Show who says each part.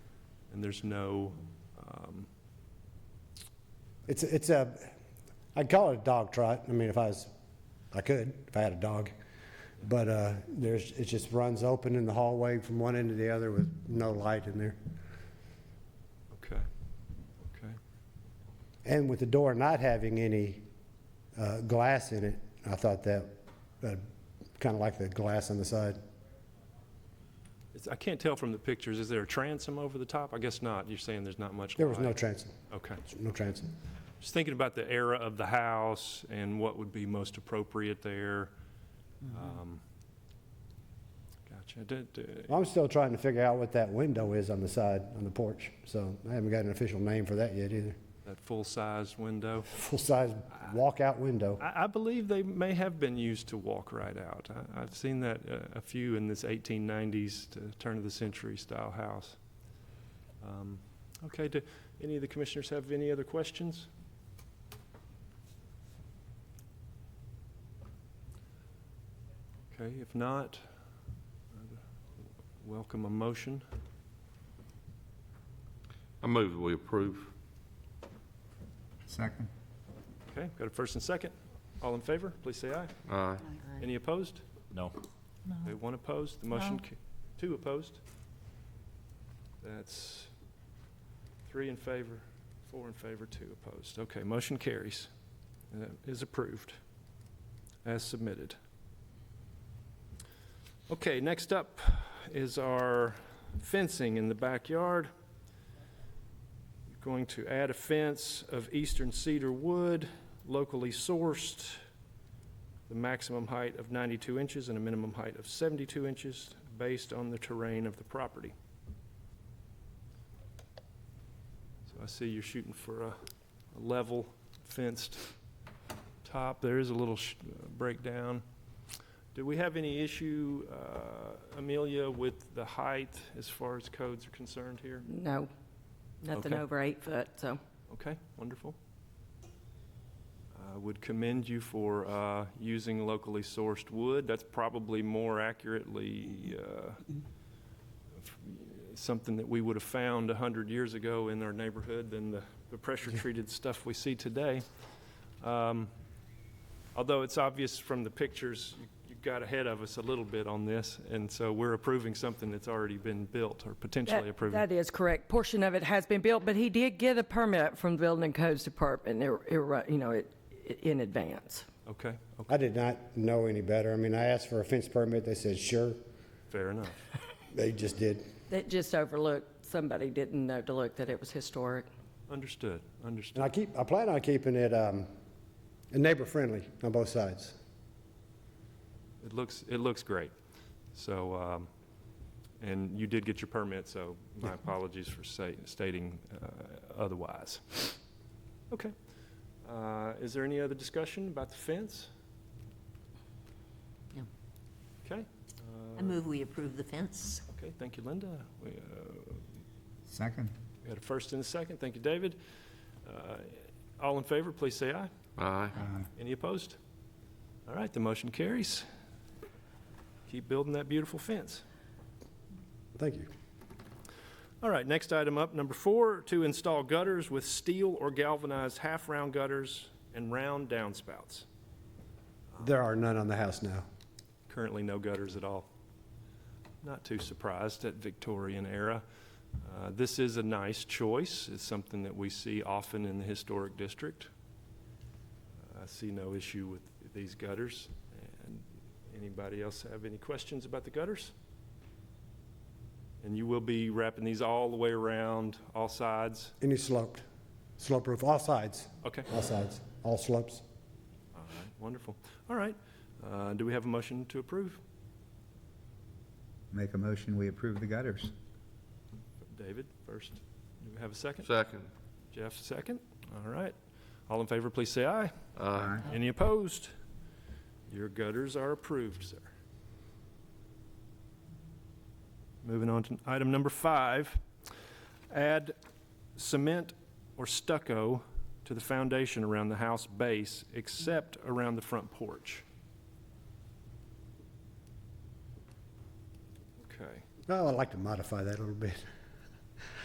Speaker 1: and there's no, um,
Speaker 2: It's, it's a, I'd call it a dog trot. I mean, if I was, I could, if I had a dog. But uh, there's, it just runs open in the hallway from one end to the other with no light in there.
Speaker 1: okay, okay.
Speaker 2: And with the door not having any uh, glass in it, I thought that, kind of like the glass on the side.
Speaker 1: It's, I can't tell from the pictures, is there a transom over the top? I guess not, you're saying there's not much light.
Speaker 2: There was no transom,
Speaker 1: Okay.
Speaker 2: no transom.
Speaker 1: Just thinking about the era of the house and what would be most appropriate there.
Speaker 2: Mm-hmm.
Speaker 1: Um, Gotcha. Did- did-
Speaker 2: I'm still trying to figure out what that window is on the side, on the porch, so I haven't got an official name for that yet either.
Speaker 1: That full-sized window.
Speaker 2: Full-size walkout window.
Speaker 1: I, I believe they may have been used to walk right out. I, I've seen that uh, a few in this 1890s to turn of the century style house. Um, okay, do any of the commissioners have any other questions? Okay, if not, I'd welcome a motion.
Speaker 3: I move that we approve.
Speaker 4: Second.
Speaker 1: Okay, got a first and second. All in favor, please say aye.
Speaker 3: Aye.
Speaker 1: Any opposed?
Speaker 5: No.
Speaker 1: Okay, one opposed, the motion,
Speaker 6: No.
Speaker 1: ca- two opposed. That's three in favor, four in favor, two opposed. Okay, motion carries, Uh, is approved, as submitted. Okay, next up is our fencing in the backyard. Going to add a fence of eastern cedar wood, locally sourced the maximum height of 92 inches and a minimum height of 72 inches based on the terrain of the property. So I see you're shooting for a a level fenced top. There is a little sh- uh, breakdown. Do we have any issue, uh, Amelia, with the height as far as codes are concerned here?
Speaker 6: No, nothing
Speaker 1: Okay.
Speaker 6: over eight foot, so.
Speaker 1: Okay, wonderful. I would commend you for uh, using locally sourced wood. That's probably more accurately uh, f- something that we would have found 100 years ago in our neighborhood than the the pressure-treated stuff we see today. Um, Although it's obvious from the pictures, you- you got ahead of us a little bit on this, and so we're approving something that's already been built or potentially
Speaker 6: That
Speaker 1: approving.
Speaker 6: that is correct. Portion of it has been built, but he did get a permit from the Building and Codes Department, ir- ir- you know, it- in advance.
Speaker 1: Okay, oh, okay,
Speaker 2: I did not know any better. I mean, I asked for a fence permit, they said, sure.
Speaker 1: fair enough.
Speaker 2: They just did.
Speaker 6: That just overlooked, somebody didn't know to look that it was historic.
Speaker 1: Understood, understood.
Speaker 2: And I keep, I plan on keeping it um, neighbor-friendly on both sides.
Speaker 1: It looks, it looks great. So, um, and you did get your permit, so my apologies for sta- stating uh, otherwise. Okay. Uh, Is there any other discussion about the fence?
Speaker 7: No.
Speaker 1: Okay. Uh,
Speaker 7: I move we approve the fence.
Speaker 1: Okay, thank you, Linda. We uh,
Speaker 4: Second.
Speaker 1: we had a first and a second. Thank you, David. Uh, All in favor, please say aye.
Speaker 3: Aye.
Speaker 1: Any opposed? All right, the motion carries. Keep building that beautiful fence.
Speaker 2: Thank you.
Speaker 1: All right, next item up, number four, to install gutters with steel or galvanized half-round gutters and round downspouts.
Speaker 2: There are none on the house now.
Speaker 1: Currently, no gutters at all. Not too surprised at Victorian era. Uh, This is a nice choice. It's something that we see often in the historic district. I see no issue with these gutters. And anybody else have any questions about the gutters? And you will be wrapping these all the way around, all sides?
Speaker 2: Any sloped, slope roof, all sides,
Speaker 1: Okay,
Speaker 2: all sides, all slopes.
Speaker 1: all right, wonderful. All right, Uh, do we have a motion to approve?
Speaker 4: Make a motion, we approve the gutters.
Speaker 1: David first. Do we have a second?
Speaker 3: Second.
Speaker 1: Jeff second. All right. All in favor, please say aye.
Speaker 3: Aye.
Speaker 1: Any opposed? Your gutters are approved, sir. Moving on to item number five, add cement or stucco to the foundation around the house base, except around the front porch. Okay.
Speaker 2: Oh, I'd like to modify that a little bit.